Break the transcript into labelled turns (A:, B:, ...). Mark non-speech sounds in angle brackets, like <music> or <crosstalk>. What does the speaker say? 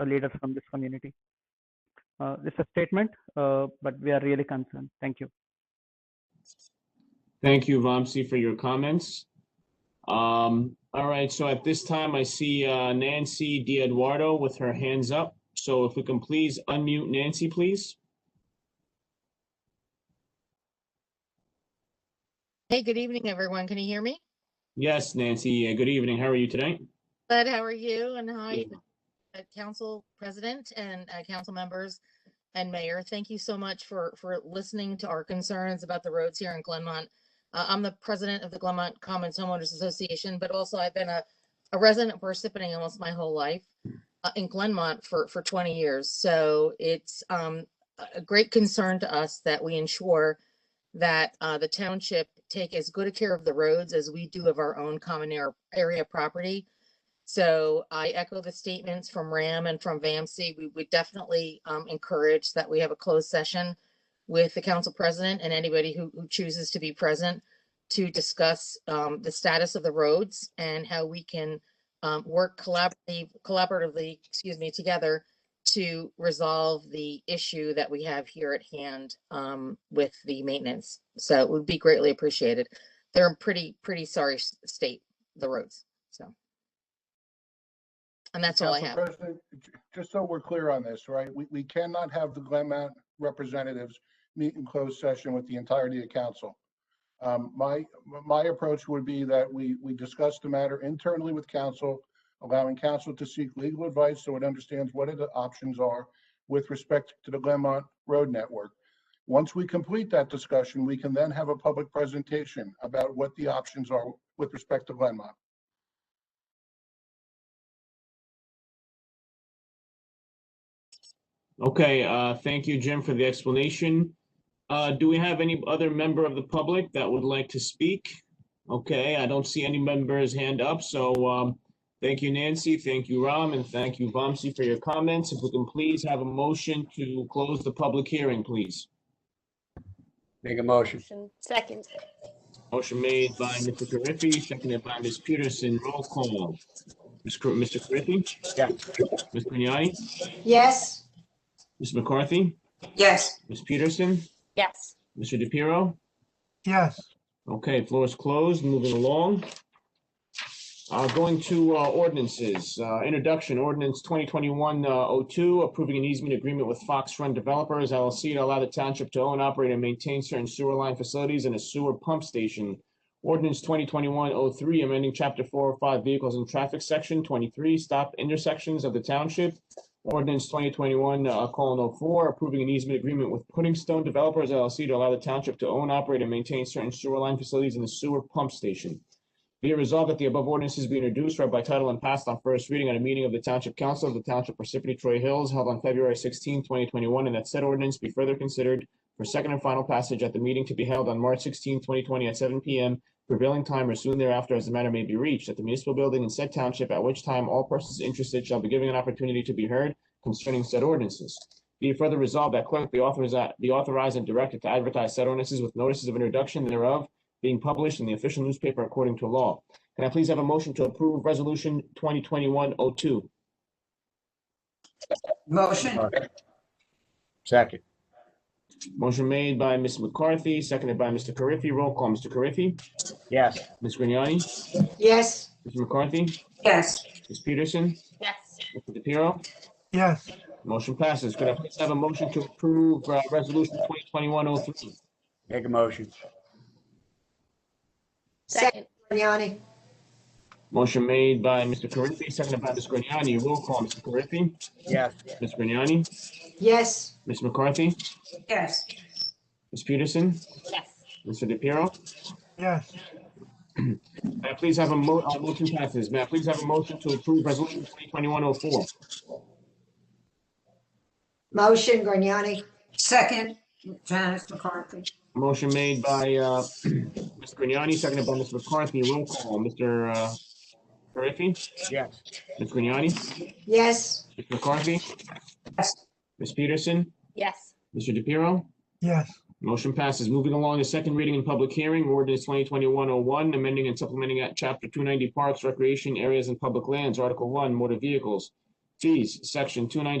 A: uh, leaders from this community. Uh, this is a statement, uh, but we are really concerned. Thank you.
B: Thank you, Vamsi, for your comments. Um, all right, so at this time, I see uh, Nancy Di Eduardo with her hands up. So if we can please unmute Nancy, please.
C: Hey, good evening, everyone. Can you hear me?
B: Yes, Nancy, uh, good evening. How are you tonight?
C: Bud, how are you? And how are you,
B: Good.
C: uh, council president and uh, council members and mayor? Thank you so much for, for listening to our concerns about the roads here in Glenmont. Uh, I'm the president of the Glenmont Commons Homeowners Association, but also I've been a, a resident of Parsippany almost my whole life uh, in Glenmont for, for 20 years. So it's um, a- a great concern to us that we ensure that uh, the township take as good a care of the roads as we do of our own common ar- area property. So I echo the statements from Ram and from VAMC. We would definitely um, encourage that we have a closed session with the council president and anybody who, who chooses to be present to discuss um, the status of the roads and how we can um, work collaboratively, collaboratively, excuse me, together to resolve the issue that we have here at hand um, with the maintenance. So it would be greatly appreciated. They're in pretty, pretty sorry s- state, the roads, so. And that's all I
D: Council
C: have.
D: President, j- Just so we're clear on this, right, we, we cannot have the Glenmount representatives meet in closed session with the entirety of council. Um, my, my approach would be that we, we discuss the matter internally with council, allowing council to seek legal advice so it understands what are the options are with respect to the Glenmont Road Network. Once we complete that discussion, we can then have a public presentation about what the options are with respect to Glenmont.
B: Okay, uh, thank you, Jim, for the explanation. Uh, do we have any other member of the public that would like to speak? Okay, I don't see any members hand up, so, um, thank you, Nancy, thank you, Ram, and thank you, Vamsi, for your comments. If we can please have a motion to close the public hearing, please.
E: Make a motion.
F: Motion. Second.
B: Motion made by Mr. Carriffy, seconded by Ms. Peterson. Roll call. Ms. Car- Mr. Carriffy?
E: Yeah.
B: Ms. Grignani?
F: Yes.
B: Ms. McCarthy?
G: Yes,
B: Ms. Peterson?
F: Yes.
B: Mr. DePiero?
H: yes.
B: Okay, floor is closed. Moving along. Uh, Going to uh, ordinances. Uh, Introduction, ordinance 2021-02, approving an easement agreement with Fox Run Developers LLC to allow the township to own, operate, and maintain certain sewer line facilities and a sewer pump station. Ordinance 2021-03, amending Chapter 405 Vehicles and Traffic, Section 23, Stop Intersections of the Township. Ordinance 2021, uh, colon 04, approving an easement agreement with Pudding Stone Developers LLC to allow the township to own, operate, and maintain certain sewer line facilities and the sewer pump station. Be it resolved that the above ordinances be introduced, read by title, and passed on first reading at a meeting of the Township Council of the Township Parsippany Troy Hills held on February 16, 2021, and that said ordinance be further considered for second and final passage at the meeting to be held on March 16, 2020, at 7 p.m. prevailing time or soon thereafter as the matter may be reached at the municipal building in said township, at which time all persons interested shall be given an opportunity to be heard concerning said ordinances. Be it further resolved that clerk be authorized, be authorized and directed to advertise said ordinances with notices of introduction thereof being published in the official newspaper according to law. Can I please have a motion to approve Resolution 2021-02?
G: motion,
E: Second.
B: Motion made by Ms. McCarthy, seconded by Mr. Carriffy. Roll call, Mr. Carriffy?
E: Yes.
B: Ms. Grignani?
F: Yes.
B: Mr. McCarthy?
G: yes,
B: Ms. Peterson?
F: Yes.
B: Mr. DePiero?
H: Yes,
B: Motion passes. Could I please have a motion to approve uh, Resolution 2021-03?
E: Make a motion.
F: Second.
I: Grignani?
B: Motion made by Mr. Carriffy, seconded by Ms. Grignani. Roll call, Mr. Carriffy?
E: Yes.
B: Ms. Grignani?
I: Yes.
B: Ms. McCarthy?
G: yes,
B: Ms. Peterson?
F: Yes.
B: Mr. DePiero?
H: yes.
B: <clears throat> May I please have a mo, uh, motion passes. May I please have a motion to approve resolution twenty twenty-one oh four?
I: Motion, Grignani?
G: second, Janice McCarthy,
B: Motion made by, uh, <clears throat> Ms. Grignani, seconded by Ms. McCarthy. Roll call, Mr. uh, Carriffy,
E: Yes.
B: Ms. Grignani,
I: Yes.
B: Ms. McCarthy,
G: yes.
B: Ms. Peterson,
F: Yes.
B: Mr. DePiero.
H: Yes.
B: Motion passes. Moving along to second reading and public hearing, ordinance twenty twenty-one oh one, amending and supplementing at chapter two ninety parks, recreation areas and public lands, article one, motor vehicles. Fees, section two ninety